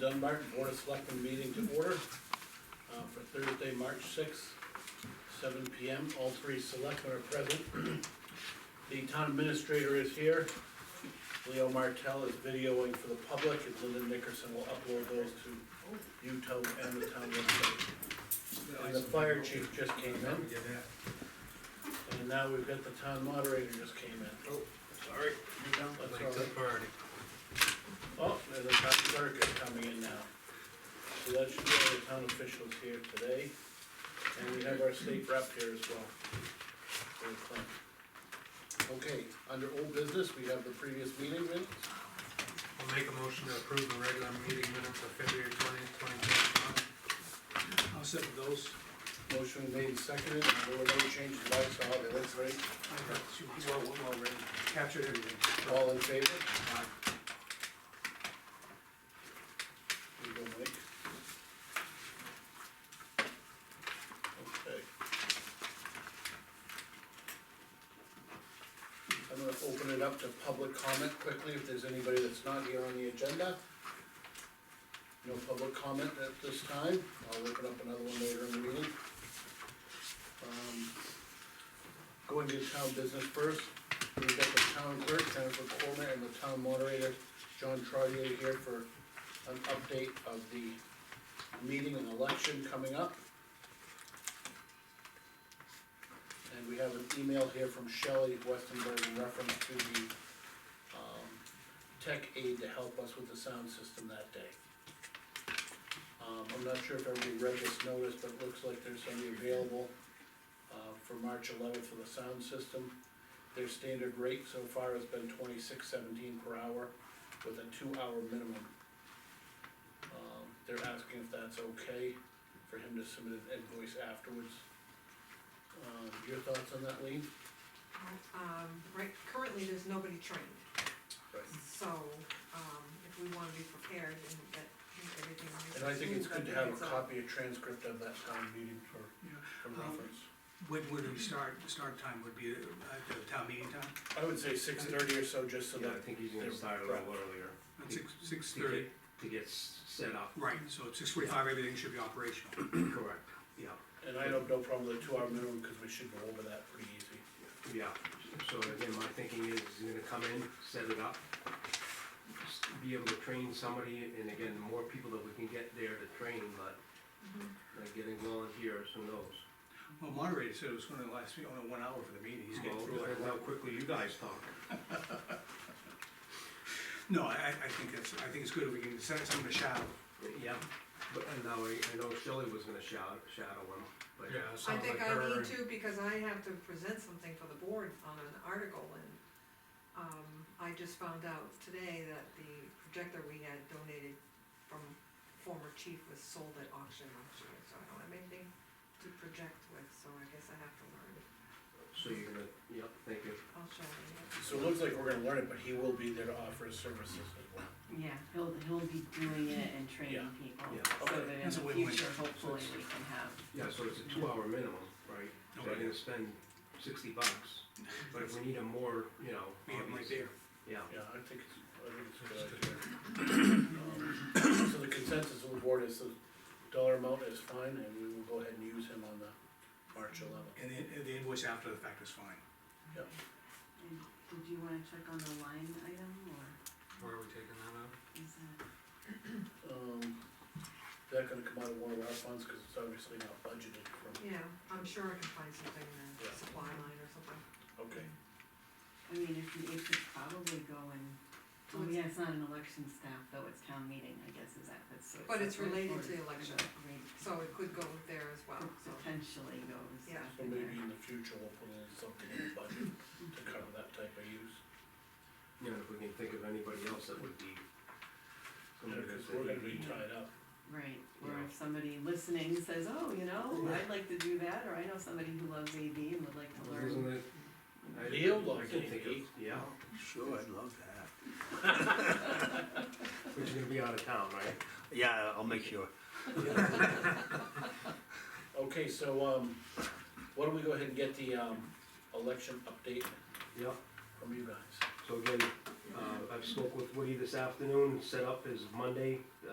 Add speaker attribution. Speaker 1: John Martin, Board of Selectmen meeting to order, uh, for Thursday, March sixth, seven P M, all three selectmen are present. The town administrator is here, Leo Martell is videoing for the public, and Linda Nickerson will upload those to YouTube and the town website. And the fire chief just came in,
Speaker 2: Get that.
Speaker 1: and now we've got the town moderator just came in.
Speaker 2: Oh, sorry.
Speaker 1: That's
Speaker 2: Late to
Speaker 1: all
Speaker 2: the
Speaker 1: right.
Speaker 2: party.
Speaker 1: Oh, there's a town clerk is coming in now. So that should be all the town officials here today, and we have our state rep here as well. for the claim. Okay, under old business, we have the previous meeting minutes,
Speaker 2: We'll make a motion to approve the regular meeting minutes of February twentieth, twenty twenty-one.
Speaker 3: I'll second those.
Speaker 1: motion made and seconded, and there were no changes I saw, they looked great,
Speaker 3: I got you. You are one already. Captured everything.
Speaker 1: all in favor?
Speaker 3: Aye.
Speaker 1: Here you go, Mike. Okay. I'm gonna open it up to public comment quickly, if there's anybody that's not here on the agenda. No public comment at this time, I'll open up another one later in the meeting. Um, Going to town business first, we've got the town clerk, Jennifer Coleman, and the town moderator, John Trotter here for an update of the meeting and election coming up. And we have an email here from Shelley Westenberg in reference to the, um, tech aid to help us with the sound system that day. Um, I'm not sure if everybody read this notice, but it looks like there's somebody available, uh, for March eleventh for the sound system. Their standard rate so far has been twenty-six seventeen per hour with a two-hour minimum. Um, they're asking if that's okay for him to submit an invoice afterwards. Um, your thoughts on that, Lee?
Speaker 4: Um, right, currently, there's nobody trained, so, um, if we wanna be prepared and that everything.
Speaker 1: And I think it's good to have a
Speaker 4: It's
Speaker 1: copy, a transcript of that town meeting for,
Speaker 3: Yeah. Um,
Speaker 1: for reference.
Speaker 3: When would we start, the start time would be, uh, the town meeting time?
Speaker 1: I would say six thirty or so, just so
Speaker 5: Yeah,
Speaker 1: that,
Speaker 5: I think he's gonna
Speaker 1: they're
Speaker 5: start a little earlier
Speaker 3: At six, six
Speaker 5: to
Speaker 3: thirty?
Speaker 5: get, to get s- set up.
Speaker 3: Right, so at six forty-five, everything should be operational.
Speaker 5: Correct.
Speaker 3: Yeah.
Speaker 1: and I don't know probably the two-hour minimum, because we should go over that pretty easy.
Speaker 5: Yeah, so again, my thinking is he's gonna come in, set it up, s- be able to train somebody, and again, the more people that we can get there to train, but like getting volunteers, who knows?
Speaker 3: Well, moderator said it was gonna last, you know, one hour for the meeting, he's getting
Speaker 5: Well,
Speaker 3: through it.
Speaker 5: depends How quickly you guys talk.
Speaker 3: No, I, I I think that's, I think it's good if we can send someone to shadow.
Speaker 5: Yeah, but and now I, I know Shelley was gonna shadow, shadow him, but.
Speaker 2: Yeah,
Speaker 4: I
Speaker 2: sounds like
Speaker 4: think
Speaker 2: her.
Speaker 4: I need
Speaker 2: and-
Speaker 4: to, because I have to present something for the board on an article, and, um, I just found out today that the projector we had donated from former chief was sold at auction last year, so I don't have anything to project with, so I guess I have to learn.
Speaker 5: So you're gonna, yep, thank you.
Speaker 4: I'll show you.
Speaker 1: So it looks like we're gonna learn it, but he will be there to offer his services as well.
Speaker 6: Yeah, he'll, he'll be doing it and training people,
Speaker 5: yeah.
Speaker 6: so
Speaker 1: Okay.
Speaker 6: that in
Speaker 3: That's a
Speaker 6: the
Speaker 3: win-win.
Speaker 6: future, hopefully, we can have,
Speaker 5: Yeah, so it's a two-hour minimum, right? So I'm
Speaker 3: Okay.
Speaker 5: gonna spend sixty bucks, but if we need a more, you know.
Speaker 3: We have Mike
Speaker 5: obvious-
Speaker 3: there.
Speaker 5: Yeah,
Speaker 1: Yeah, I think it's, I think it's a good idea. Um, So the consensus of the board is the dollar amount is fine, and we will go ahead and use him on the March eleventh.
Speaker 3: And the, and the invoice after the fact is fine.
Speaker 6: and did you wanna check on the line item, or
Speaker 2: Where are we taking that out?
Speaker 6: is that?
Speaker 1: Um, is that gonna come out of one of our funds, cause it's obviously not budgeted from,
Speaker 4: Yeah, I'm sure I can find something in the
Speaker 1: Yeah.
Speaker 4: supply line or something.
Speaker 1: okay.
Speaker 6: I mean, if you, it could probably go in, oh yeah, it's not an election staff, though, it's town meeting, I guess, is that, that's. so
Speaker 4: But it's
Speaker 6: separate,
Speaker 4: related
Speaker 6: or
Speaker 4: to the election.
Speaker 6: related-
Speaker 4: So it could go there as well,
Speaker 6: Could
Speaker 4: so.
Speaker 6: potentially goes
Speaker 4: Yeah.
Speaker 1: So
Speaker 6: after
Speaker 1: maybe in
Speaker 6: there.
Speaker 1: the future, we'll put in something in the budget to cover that type of use.
Speaker 5: you know, if we can think of anybody else that would be. somebody
Speaker 1: Because
Speaker 5: that's-
Speaker 1: we're gonna be tied up.
Speaker 6: Right, or
Speaker 5: Yeah.
Speaker 6: if somebody listening says, oh, you know,
Speaker 5: Yeah.
Speaker 6: I'd like to do that, or I know somebody who loves AV and would like to learn.
Speaker 5: Isn't it? I-
Speaker 1: Leo
Speaker 5: I
Speaker 1: loves
Speaker 5: can think
Speaker 1: AV.
Speaker 5: of- Yeah,
Speaker 7: Sure, I'd love that.
Speaker 5: but you're gonna be out of town, right?
Speaker 7: Yeah, I'll make sure.
Speaker 1: Okay, so, um, why don't we go ahead and get the, um, election update
Speaker 5: Yep.
Speaker 1: from you guys?
Speaker 5: So again, uh, I've spoke with Woody this afternoon, set up his Monday,